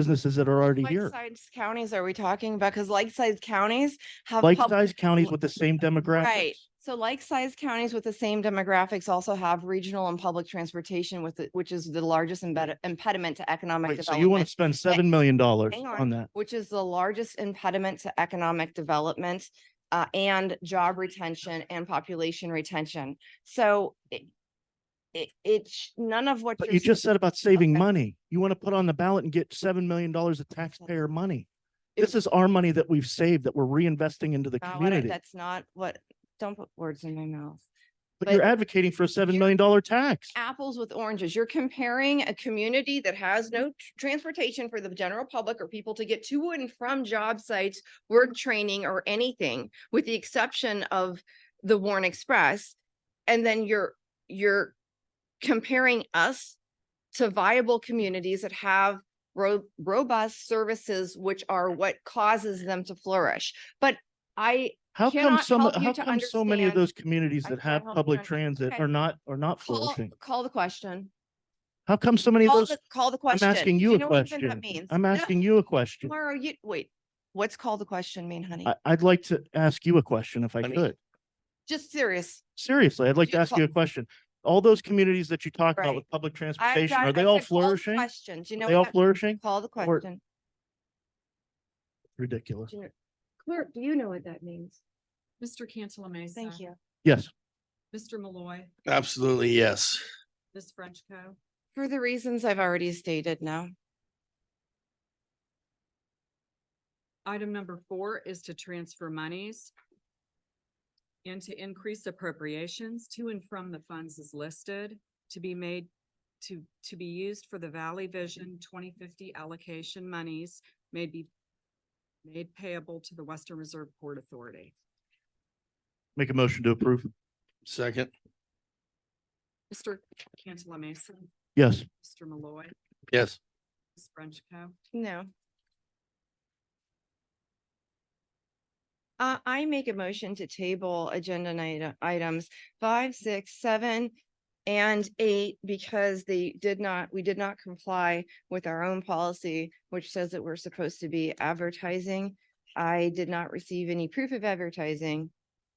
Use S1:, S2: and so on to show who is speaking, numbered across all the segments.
S1: businesses that are already here.
S2: Like-sized counties are we talking about? Because like-sized counties have. pub-
S1: Like-sized counties with the same demographics.
S2: Right. So like-sized counties with the same demographics also have regional and public transportation with, it, which is the largest imped- impediment to economic
S1: Wait, so you want
S2: development.
S1: to spend seven million dollars
S2: Hang
S1: on that?
S2: Which is the largest impediment to economic development uh, and job retention and population retention. So it, it, it sh- none of what.
S1: But
S2: you're
S1: you
S2: s-
S1: just said about saving
S2: Okay.
S1: money. You want to put on the ballot and get seven million dollars of taxpayer money. This
S2: It-
S1: is our money that we've saved that we're reinvesting into the
S2: not what I-
S1: community.
S2: That's not what, don't put words in my mouth.
S1: But you're
S2: but-
S1: advocating for a seven million dollar tax.
S2: apples with oranges. You're comparing a community that has no t- transportation for the general public or people to get to and from job sites, work training or anything, with the exception of the Warren Express. And then you're, you're comparing us to viable communities that have ro- robust services, which are what causes them to flourish. But I,
S1: How come
S2: cannot
S1: some,
S2: help you
S1: how
S2: to
S1: come so many of
S2: understand-
S1: those communities
S2: I
S1: that
S2: cannot
S1: have
S2: help you
S1: public
S2: to
S1: transit
S2: Okay.
S1: are not, are not
S2: call,
S1: flourishing?
S2: call the question.
S1: How come so many of
S2: Call
S1: those?
S2: the, call the
S1: I'm
S2: question.
S1: asking
S2: Do
S1: you a
S2: know what even
S1: question.
S2: that means?
S1: I'm
S2: No.
S1: asking you a question.
S2: Tomorrow, you, wait, what's called the question mean, honey?
S1: I, I'd like to ask you a question if I
S3: Honey.
S1: could.
S2: Just serious.
S1: Seriously, I'd like to
S2: You
S1: ask
S2: call-
S1: you a question. All those communities that you talk about
S2: Right.
S1: with public
S2: I've
S1: transportation,
S2: got-
S1: are
S2: I
S1: they all
S2: said, call the
S1: flourishing? Are
S2: Question, do you know?
S1: They all
S2: what that-
S1: flourishing?
S2: Call the
S1: or-
S2: question.
S1: Ridiculous.
S2: Clerk, do you know what that means?
S4: Mr. Cantala Mesa.
S2: Thank you.
S1: Yes.
S4: Mr. Malloy,
S3: Absolutely, yes.
S4: Ms. Frenchco.
S2: For the reasons I've already stated now.
S4: Item number four is to transfer monies and to increase appropriations to and from the funds as listed to be made to, to be used for the Valley Vision twenty fifty allocation monies may be made payable to the Western Reserve Port Authority.
S1: Make a motion to approve.
S3: Second,
S4: Mr. Cantala Mesa,
S1: Yes.
S4: Mr. Malloy,
S3: yes.
S4: Ms. Frenchco.
S2: No. Uh, I make a motion to table agenda nite- items five, six, seven, and eight because they did not, we did not comply with our own policy, which says that we're supposed to be advertising. I did not receive any proof of advertising.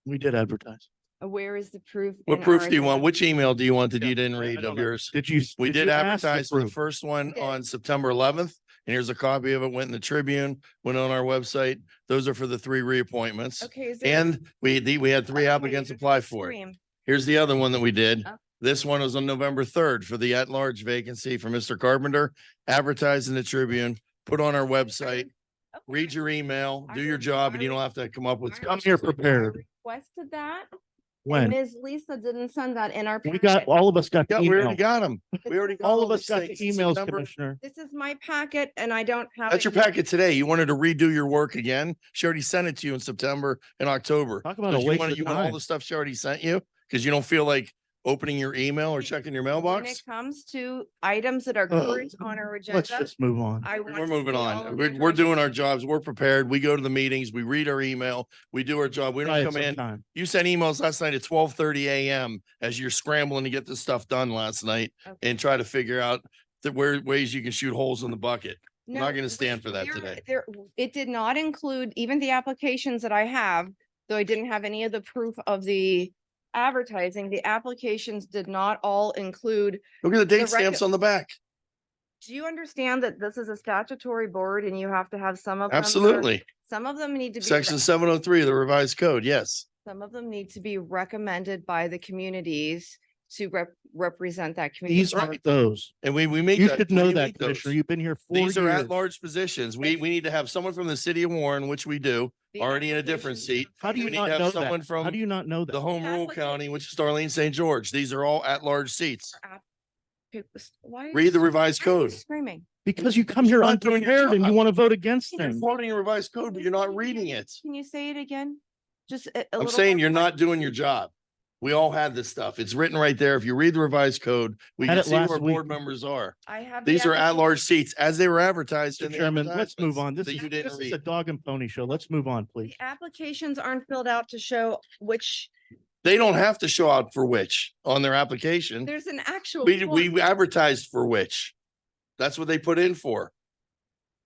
S1: We did advertise.
S2: Uh, Where is the proof?
S3: What
S2: in
S3: proof
S2: ours
S3: do you
S2: that
S3: want?
S2: we're-
S3: Which email do you want that
S1: Yeah,
S3: you didn't
S1: I- I
S3: read
S1: don't
S3: of
S1: know.
S3: yours?
S1: Did you?
S3: We did
S1: you ask to
S3: advertise the
S1: approve?
S3: first one
S2: did.
S3: on September eleventh, and here's a copy of it, went in the Tribune, went on our website. Those are for the three reappointments.
S2: Okay. is there-
S3: And we, the- we had three
S2: Okay,
S3: applicants
S2: you're
S3: apply for it.
S2: scream.
S3: Here's the other one that we did.
S4: Oh.
S3: This one was on November third for the at-large vacancy for Mr. Carpenter, advertised in the Tribune, put on our website,
S2: Okay.
S3: read your email,
S2: I
S3: do your
S2: will-
S3: job, and
S2: I
S3: you don't
S2: will-
S3: have to come up with.
S2: I will-
S1: Come here prepared.
S2: I Requested that. And
S1: When?
S2: Ms. Lisa didn't send that in our.
S1: We got,
S2: packet.
S1: all of us got the
S3: Yeah, we already
S1: email.
S3: got them.
S2: This
S3: We already
S2: is-
S3: got
S1: All of
S3: all
S1: us
S3: these
S1: got the
S3: things. It's
S1: emails,
S3: number-
S1: Commissioner.
S2: This is my packet and I don't have.
S3: That's
S2: it
S3: your
S2: here.
S3: packet today. You wanted to redo your work again. She already sent it to you in September and October.
S1: Talk about
S3: So
S1: a
S3: you
S1: waste
S3: wanna-
S1: of
S3: you want
S1: time.
S3: All the stuff she already sent you because you don't feel like opening your email or checking your
S2: When it
S3: mailbox.
S2: comes to items that are
S1: Ugh.
S2: current on our
S1: Let's
S2: agenda,
S1: just move on.
S2: I want.
S3: We're
S2: to
S3: moving
S2: see all
S3: on.
S2: of
S3: We're,
S2: your
S3: we're doing our
S2: documents.
S3: jobs. We're prepared. We go to the meetings. We read our email. We do our job. We
S1: Try
S3: don't
S1: it
S3: come in.
S1: sometime.
S3: You sent emails last night at twelve thirty AM as you're scrambling to get this stuff done last night
S2: Okay.
S3: and try to figure out the where ways you can shoot holes in the bucket. We're
S2: No,
S3: not gonna
S2: we-
S3: stand for that
S2: there-
S3: today.
S2: There, it did not include even the applications that I have, though I didn't have any of the proof of the advertising. The applications did not all include
S3: Look at the date
S2: record-
S3: stamps on the back.
S2: Do you understand that this is a statutory board and you have to have some of them? that are-
S3: Absolutely.
S2: Some of them need to be. re-
S3: Section seven oh three of the revised code, yes.
S2: Some of them need to be recommended by the communities to rep- represent that community.
S1: These aren't those.
S3: And we, we make.
S1: You should know
S3: we
S1: that,
S3: make those.
S1: Commissioner. You've been here four years.
S3: These are at-large positions. We, we need to have someone from the city of Warren, which we do,
S2: The
S3: already in a different
S2: applications-
S3: seat.
S1: How do
S3: We
S1: you
S3: need
S1: not
S3: to have
S1: know
S3: someone
S1: that? How
S3: from
S1: do you not know
S3: the
S1: that?
S3: home rule
S2: Applicant-
S3: county, which is Darlene St. George. These are all at-large seats.
S2: app- Okay, s- Why? are you
S3: Read the
S2: s-
S3: revised
S2: why are you
S3: code.
S2: Screaming.
S1: Because you come here
S3: not doing your
S1: unprepared and you
S3: job.
S1: want to vote against
S3: You're
S1: things.
S3: quoting a revised code, but you're not reading it.
S2: Can you say it again? Just a- a
S3: I'm
S2: little
S3: saying
S2: more
S3: you're not
S2: clear.
S3: doing your job. We all had this stuff. It's written right there. If you read the revised code, we
S1: Had
S3: can
S1: it
S3: see who
S1: last
S3: our board
S1: week.
S3: members are.
S2: I have. the
S3: These are
S2: application-
S3: at-large seats as they were advertised. in
S1: Mr.
S3: the
S1: Chairman, let's move
S3: advertisements
S1: on. This
S3: That
S1: is,
S3: you
S1: this
S3: didn't
S1: is a
S3: read.
S1: dog and pony show. Let's move on, please.
S2: The applications aren't filled out to show which,
S3: They don't have to show out for which on their application.
S2: there's an actual.
S3: We,
S2: form.
S3: we advertised for which. That's what they put in for.